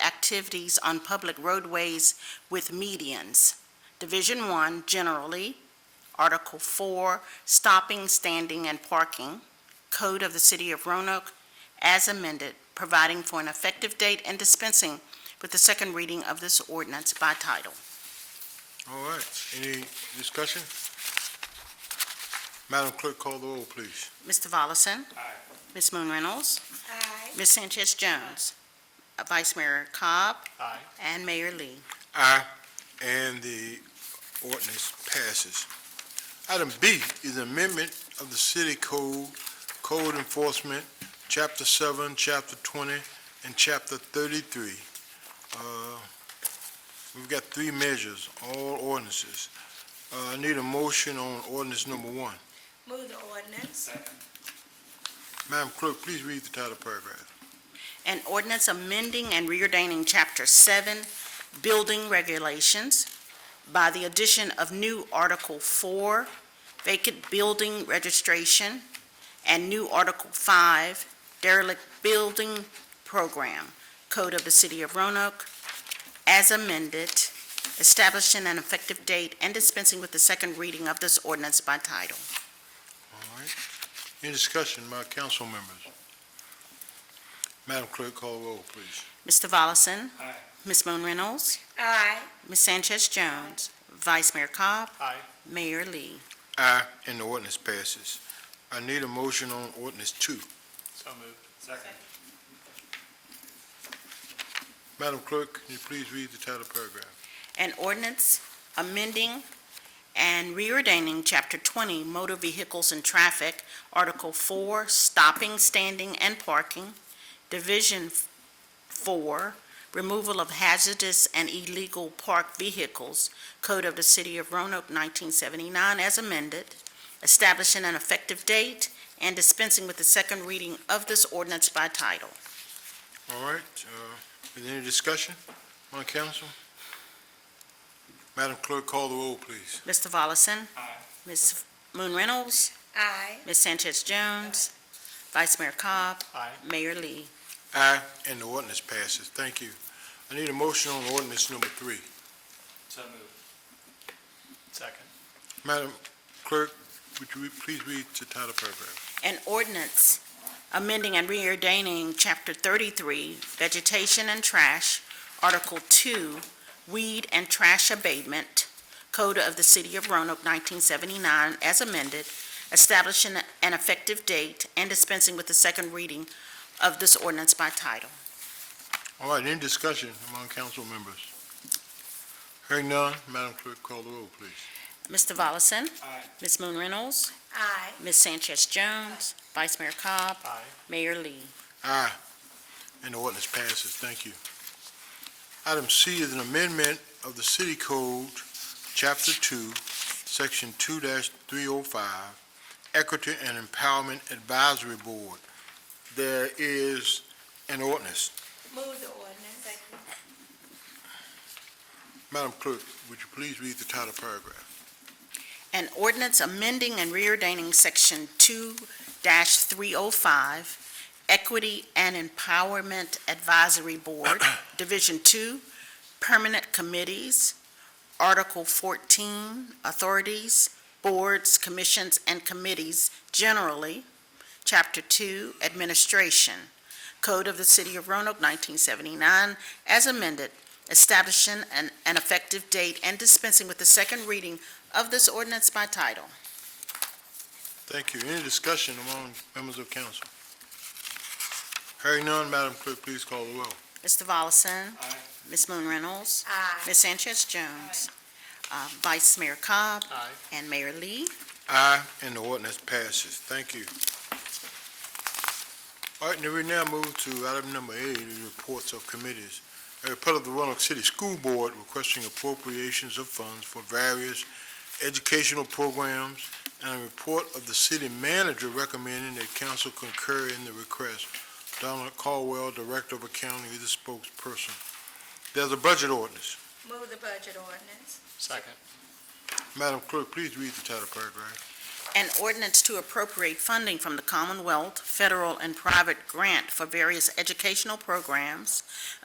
activities on public roadways with medians. Division one, generally, Article four, stopping, standing, and parking, Code of the City of Roanoke, as amended, providing for an effective date and dispensing with the second reading of this ordinance by title. All right, any discussion? Madam Clerk, call the roll, please. Mr. Volleson? Aye. Ms. Moon Reynolds? Aye. Ms. Sanchez Jones? Uh, Vice Mayor Cobb? Aye. And Mayor Lee. Aye, and the ordinance passes. Item B is amendment of the City Code, Code Enforcement, Chapter 7, Chapter 20, and Chapter 33. Uh, We've got three measures, all ordinances. Uh, I need a motion on ordinance number one. Move the ordinance. Madam Clerk, please read the title paragraph. An ordinance amending and reordaining Chapter 7 Building Regulations by the addition of new Article 4 Vacant Building Registration and new Article 5 Derelict Building Program Code of the City of Roanoke as amended, establishing an effective date and dispensing with the second reading of this ordinance by title. All right. Any discussion, my council members? Madam Clerk, call the roll, please. Mr. Volleson? Aye. Ms. Moon Reynolds? Aye. Ms. Sanchez Jones. Vice Mayor Cobb. Aye. Mayor Lee. Aye, and the ordinance passes. I need a motion on ordinance two. So moved. Second. Madam Clerk, can you please read the title paragraph? An ordinance amending and reordaining Chapter 20 Motor Vehicles and Traffic, Article 4, Stopping, Standing, and Parking, Division 4, Removal of Hazardous and Illegal Parked Vehicles, Code of the City of Roanoke, 1979, as amended, establishing an effective date and dispensing with the second reading of this ordinance by title. All right, uh, is there any discussion on council? Madam Clerk, call the roll, please. Mr. Volleson? Aye. Ms. Moon Reynolds? Aye. Ms. Sanchez Jones? Vice Mayor Cobb? Aye. Mayor Lee? Aye, and the ordinance passes. Thank you. I need a motion on ordinance number three. So moved. Second. Madam Clerk, would you please read the title paragraph? An ordinance amending and reordaining Chapter 33 Vegetation and Trash, Article 2 Weed and Trash Abatement, Code of the City of Roanoke, 1979, as amended, establishing an effective date and dispensing with the second reading of this ordinance by title. All right, any discussion among council members? Hearing none, Madam Clerk, call the roll, please. Mr. Volleson? Aye. Ms. Moon Reynolds? Aye. Ms. Sanchez Jones, Vice Mayor Cobb, Aye. Mayor Lee. Aye. And the ordinance passes. Thank you. Item C is an amendment of the City Code, Chapter 2, Section 2-305, Equity and Empowerment Advisory Board. There is an ordinance. Move the ordinance. Madam Clerk, would you please read the title paragraph? An ordinance amending and reordaining Section 2-305 Equity and Empowerment Advisory Board, Division 2, Permanent Committees, Article 14, Authorities, Boards, Commissions, and Committees generally, Chapter 2, Administration, Code of the City of Roanoke, 1979, as amended, establishing an an effective date and dispensing with the second reading of this ordinance by title. Thank you. Any discussion among members of council? Hearing none, Madam Clerk, please call the roll. Mr. Volleson? Aye. Ms. Moon Reynolds? Aye. Ms. Sanchez Jones? uh, Vice Mayor Cobb? Aye. And Mayor Lee? Aye, and the ordinance passes. Thank you. All right, now we now move to item number eight, the reports of committees. A report of the Roanoke City School Board requesting appropriations of funds for various educational programs, and a report of the city manager recommending that council concur in the request. Donald Caldwell, Director of Accounting, is the spokesperson. There's a budget ordinance. Move the budget ordinance. Second. Madam Clerk, please read the title paragraph. An ordinance to appropriate funding from the Commonwealth, federal, and private grant for various educational programs,